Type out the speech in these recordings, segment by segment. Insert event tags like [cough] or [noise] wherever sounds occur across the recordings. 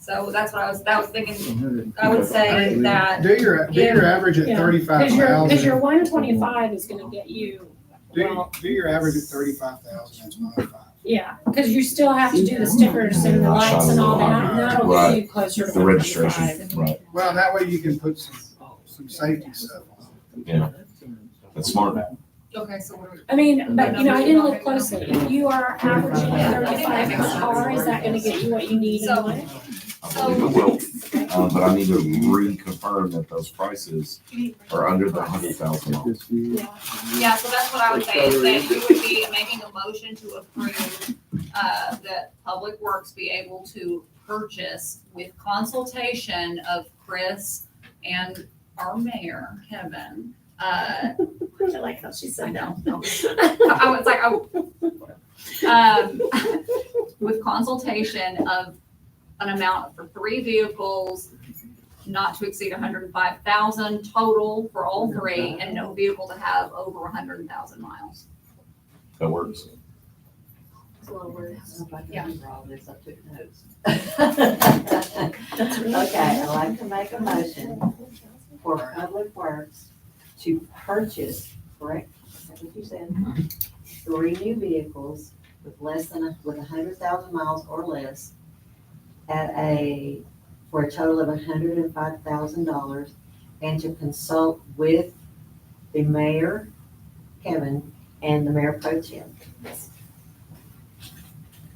So that's what I was, that was thinking, I I would say that, Do your, do your average at Yeah. thirty-five Cause your, cause your thousand. one twenty-five is gonna get you, Do, well, do your average at thirty-five thousand, that's my five. yeah, cause you still have to do the stickers and the lights and all that, and that'll get you closer to The one registration, twenty-five. right, Well, that way you can put some, some safety stuff on. yeah. That's smart. okay, so we're, I mean, but you know, I didn't look closely, if you are averaging thirty-five per car, is that gonna get you what you need in So- one? I Oh. believe it will, uh, but I need to reconfirm that those prices are under the hundred thousand dollars. Yeah, yeah, so that's what I would say, is that you would be making a motion to approve, uh, that Public Works be able to purchase with consultation of Chris and our mayor, Kevin, uh, I like how she I said that. know. I was like, oh. Um, with consultation of an amount for three vehicles, not to exceed hundred and five thousand total for all three, and no vehicle to have over hundred thousand miles. That works. [laughs] Yeah. [laughs] Okay, I'd like to make a motion for Public Works to purchase, correct, is that what you said? Three new vehicles with less than, a- with a hundred thousand miles or less at a, for a total of a hundred and five thousand dollars and to consult with the mayor, Kevin, and the mayor pro tem. Is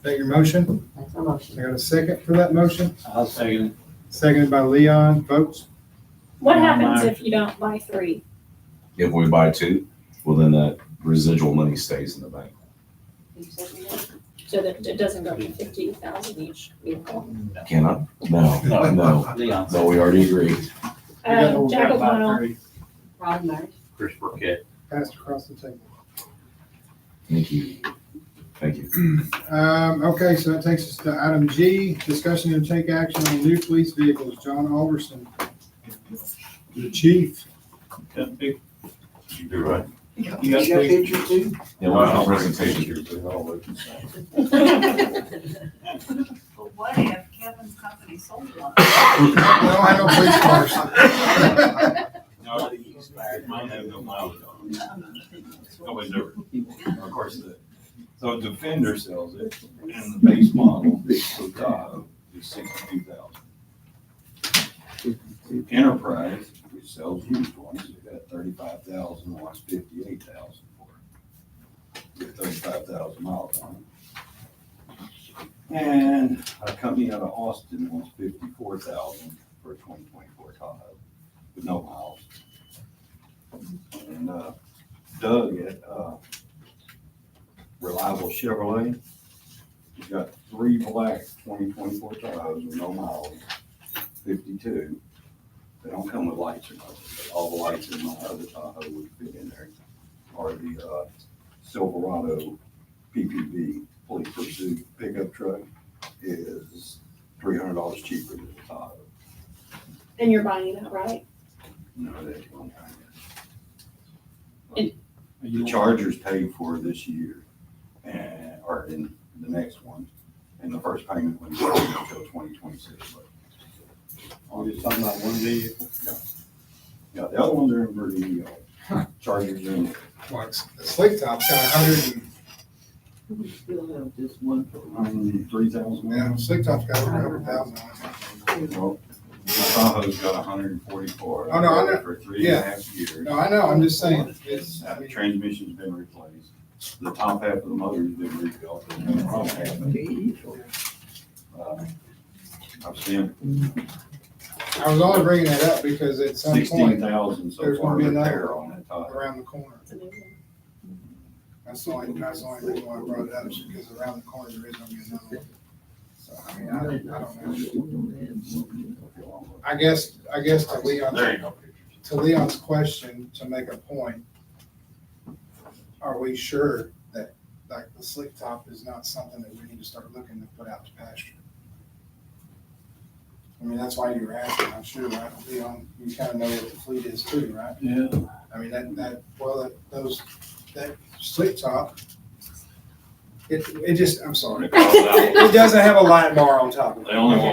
that your motion? That's my motion. I got a second for that motion, I'll second it. seconded by Leon, votes. what happens if you don't buy three? If we buy two, well, then that residual money stays in the bank. You said you did? So that it doesn't go to fifty thousand each vehicle. Can I? No, no, Leon. no, we already agreed. We got the Um, old Jack guy by O'Connell, three, Ron Marsh? [laughs] Chris Burkett. Passed across the table. Thank you. Thank you. Um, okay, so that takes us to item G, discussion and take action on new police vehicles, John Alderson. The chief. You do right. You got pictures too? Yeah, well, presentation. But what if Kevin's company sold one? We don't have no police [laughs] cars. [laughs] Nobody's ever, of course, the, so Defender sells it, and the base model, the Sotago, is sixty-two thousand. Enterprise, which sells used ones, they got thirty-five thousand, one's fifty-eight thousand for it. Get thirty-five thousand miles on it. And a company out of Austin wants fifty-four thousand for a twenty twenty-four Tahoe with no miles. And uh, Doug at uh, Reliable Chevrolet, he's got three black twenty twenty-four Tahoes with no miles, fifty-two. They don't come with lights or nothing, but all the lights in my other Tahoe would fit in there. Or the uh, Silverado PPV, police pursuit pickup truck is three hundred dollars cheaper than the Tahoe. and you're buying that, right? No, that's one time. And- The Chargers paid for this year and, or in the next one, and the first payment wouldn't go until twenty twenty-six. We're just talking about one vehicle? Yeah. Yeah, the other ones are in Virginia, Chargers are in, Like, slick top's got a hundred and, Still have just one for um, three thousand. yeah, slick top's got over a hundred thousand on it. Well, the Tahoe's got hundred and forty-four. Oh, no, I know. For three and a half years. No, I know, I'm just saying, it's, I Uh, mean, Transmission's been replaced, the top half of the motor's been rebuilt, there's been a problem happening. Uh, I've seen I was only bringing that up because at some sixteen point, thousand so there's far gonna be another repair on that top. around the corner, It's amazing. that's the only, that's the only reason why I brought it up, is because around the corner, there is gonna be another one. So, I mean, I, I don't know. I guess, I guess to There you Leon's, go. to Leon's question, to make a point, are we sure that, like, the slick top is not something that we need to start looking to put out to pasture? I mean, that's why you were asking, I'm sure, right, Leon, you kind of know what the fleet is too, right? Yeah. I mean, that, that, well, that, those, that slick top, it, it just, I'm sorry. They called out. It doesn't have a light bar on top of it. They only want